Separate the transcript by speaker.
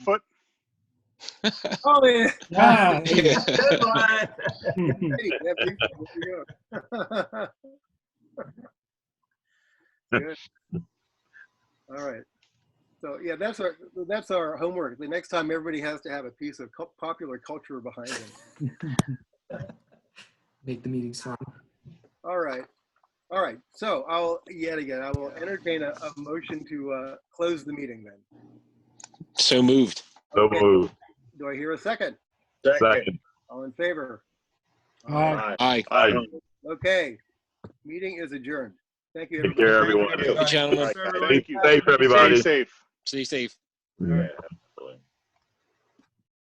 Speaker 1: foot.
Speaker 2: Oh, yeah.
Speaker 3: Ah,
Speaker 2: Deadline.
Speaker 3: All
Speaker 2: Hey, that big fella, there you go. Good. All right. So yeah, that's our that's our homework. The next time, everybody has to have a piece of cul- popular culture behind them.
Speaker 4: Make the meeting sound.
Speaker 2: All right. All right. So I'll yet again I will entertain a, a motion to uh, close the meeting. Then
Speaker 5: So moved.
Speaker 6: So
Speaker 2: Okay.
Speaker 6: moved.
Speaker 2: do I hear a second?
Speaker 6: Second.
Speaker 2: All in favor?
Speaker 3: right.
Speaker 5: Aye.
Speaker 6: Aye.
Speaker 2: Okay. Meeting is adjourned. Thank you.
Speaker 6: Take care, everyone.
Speaker 5: Gentlemen,
Speaker 6: Be
Speaker 1: Thank you.
Speaker 6: safe, everybody.
Speaker 1: Stay safe.
Speaker 5: stay safe.
Speaker 6: Yeah.